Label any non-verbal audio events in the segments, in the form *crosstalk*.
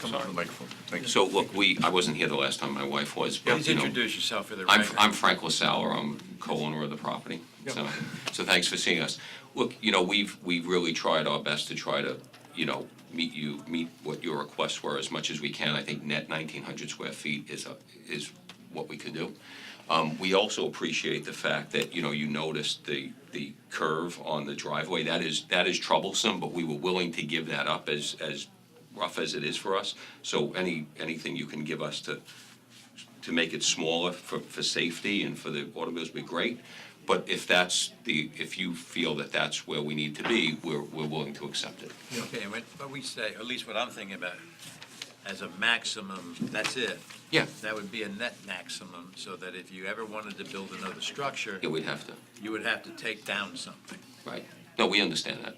Come on, the microphone. Thank you. So look, we, I wasn't here the last time, my wife was, but Please you know. introduce yourself for the I'm, record. I'm Frank LaSalle, or I'm co-owner of the property. So, so thanks for seeing us. Look, you know, we've, we've really tried our best to try to, you know, meet you, meet what your requests were as much as we can. I think net nineteen hundred square feet is, a- is what we can do. Um, we also appreciate the fact that, you know, you noticed the, the curve on the driveway. That is, that is troublesome, but we were willing to give that up as, as rough as it is for us. So any, anything you can give us to, to make it smaller for, for safety and for the automobiles would be great. But if that's the, if you feel that that's where we need to be, we're, we're willing to accept it. Okay, what, what we say, at least what I'm thinking about, as a maximum, that's it. Yeah. That would be a net maximum, so that if you ever wanted to build another structure, Yeah, we'd have to, you would have to take down something. right? No, we understand that.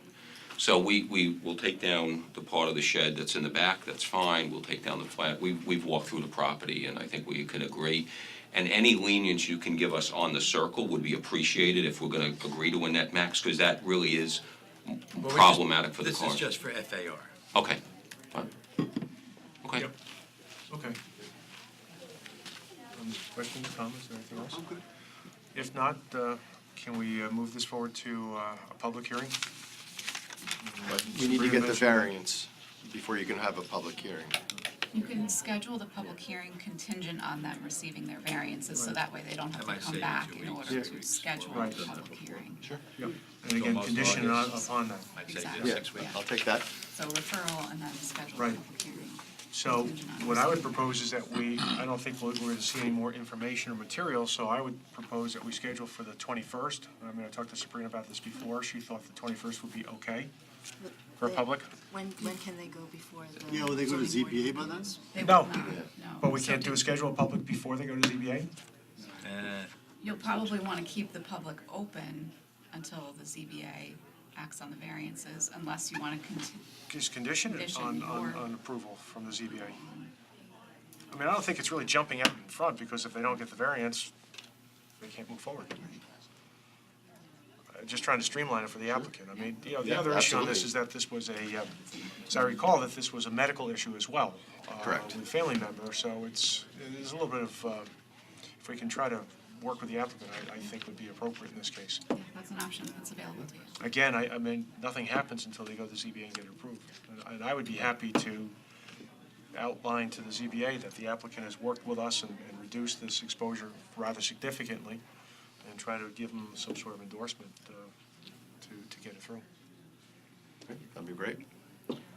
So we, we will take down the part of the shed that's in the back, that's fine, we'll take down the flat. We, we've walked through the property and I think we can agree. And any lenience you can give us on the circle would be appreciated if we're gonna agree to a net max, because that really is Well, we just- problematic for the This cars. is just for FAR. Okay, fine. Okay. Yep. Okay. Um, Questions, comments, or anything else? If not, uh, can we uh, move this forward to uh, a public hearing? You need to get the Sabrina mentioned- variance before you can have a public hearing. You can schedule the public hearing contingent on them receiving their variances, so that way they don't That have to might come save you back two in weeks. order Yeah. to schedule Right. the public hearing. And again, Almost condition on- August. upon that. I'd say Exactly. just six weeks. I'll take that. So referral and then schedule the Right. public hearing. So what I would propose is that we, I don't think we're going to see any more information or material, so I would propose that we schedule for the 21st. I mean, I talked to Sabrina about this before. She thought the 21st would be okay for a public. When, when can they go before the? Yeah, will they go to zoning board ZBA by then? meetings? They No. will not, Yeah. no. But we So can't do a schedule of public before they go to ZBA? Uh, You'll probably want to keep the public open until the ZBA acts on the variances, unless you want to continue. Just condition it on, Condition on, or- on approval from the ZBA. I mean, I don't think it's really jumping out in front, because if they don't get the variance, they can't move forward. Uh, Just trying to streamline it for the applicant. I mean, you know, the Yeah, other issue on this absolutely. is that this was a, uh, as I recall, that this was a medical issue as well. uh, Correct. With a family member, so it's, there's a little bit of, uh, if we can try to work with the applicant, I, I think would be appropriate in this case. That's an option that's available to you. Again, I, I mean, nothing happens until they go to ZBA and get it approved. And- And I would be happy to outline to the ZBA that the applicant has worked with us and, and reduced this exposure rather significantly, and try to give them some sort of endorsement uh, to, to get it through. That'd be great.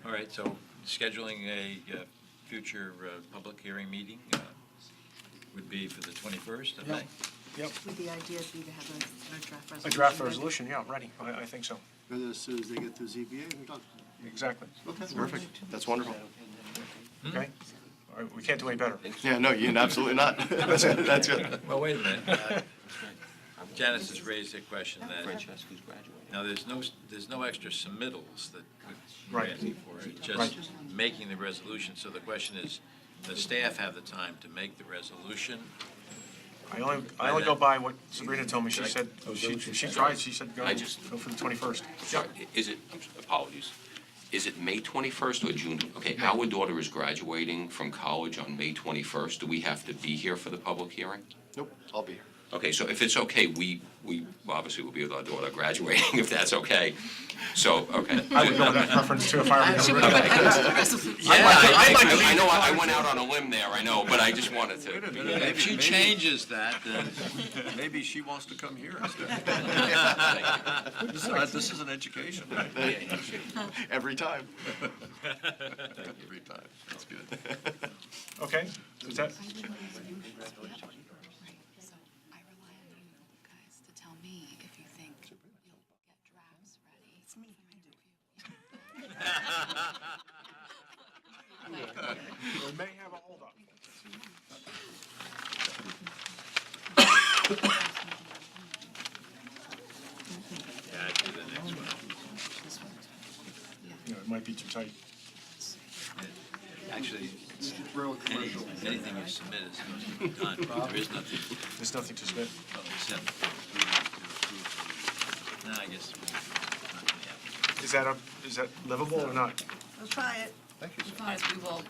All right, so scheduling a uh, future uh, public hearing meeting uh, would be for the 21st of May? Yep. Would the idea be to have a- a draft resolution? A draft by- resolution, yeah, ready, I, I think so, Then as soon as they get through ZBA, we're done. exactly, Okay, perfect. That's wonderful. okay? All right, we can't do any better. Yeah, no, you, absolutely not. That's good, that's good. Well, wait a minute. Uh, Janice has raised a question that, Francesca's graduating. now, there's no, there's no extra submittals that we're Right. asking for. It's Right. just making the resolution. So the question is, does staff have the time to make the resolution? I only, I only go by what Sabrina told me, she said, Oh, is that she, what you she said? tried, she said, go, I just- go for the twenty-first. Is it, I'm s- apologies, is it May 21st or June? Okay, our daughter is graduating from college on May 21st. Do we have to be here for the public hearing? Nope, I'll be here. Okay, so if it's okay, we, we obviously will be with our daughter graduating, *laughs* if that's okay. So, okay. I would go with that preference too if I were Should you. we put that into the resolution? Yeah, I, I- I know, I I went out on a limb there, I know, but I just wanted to. If she changes that, then *laughs* Maybe she wants to come here instead. This is- This is an education. Every time. Every time. That's good. Okay, is that, I would like you to be up on it. Right, so I rely on you guys to tell me if you think you'll get drafts ready. for my review. we may have a holdup. yeah, I'd do the next one. You know, it might be too tight. Actually, any- anything you submit is going to be done. There is nothing There's nothing to submit. Well, except we have to approve the- No, I guess. we- not the app. Is that up, is that livable or not? Let's try it. Because we will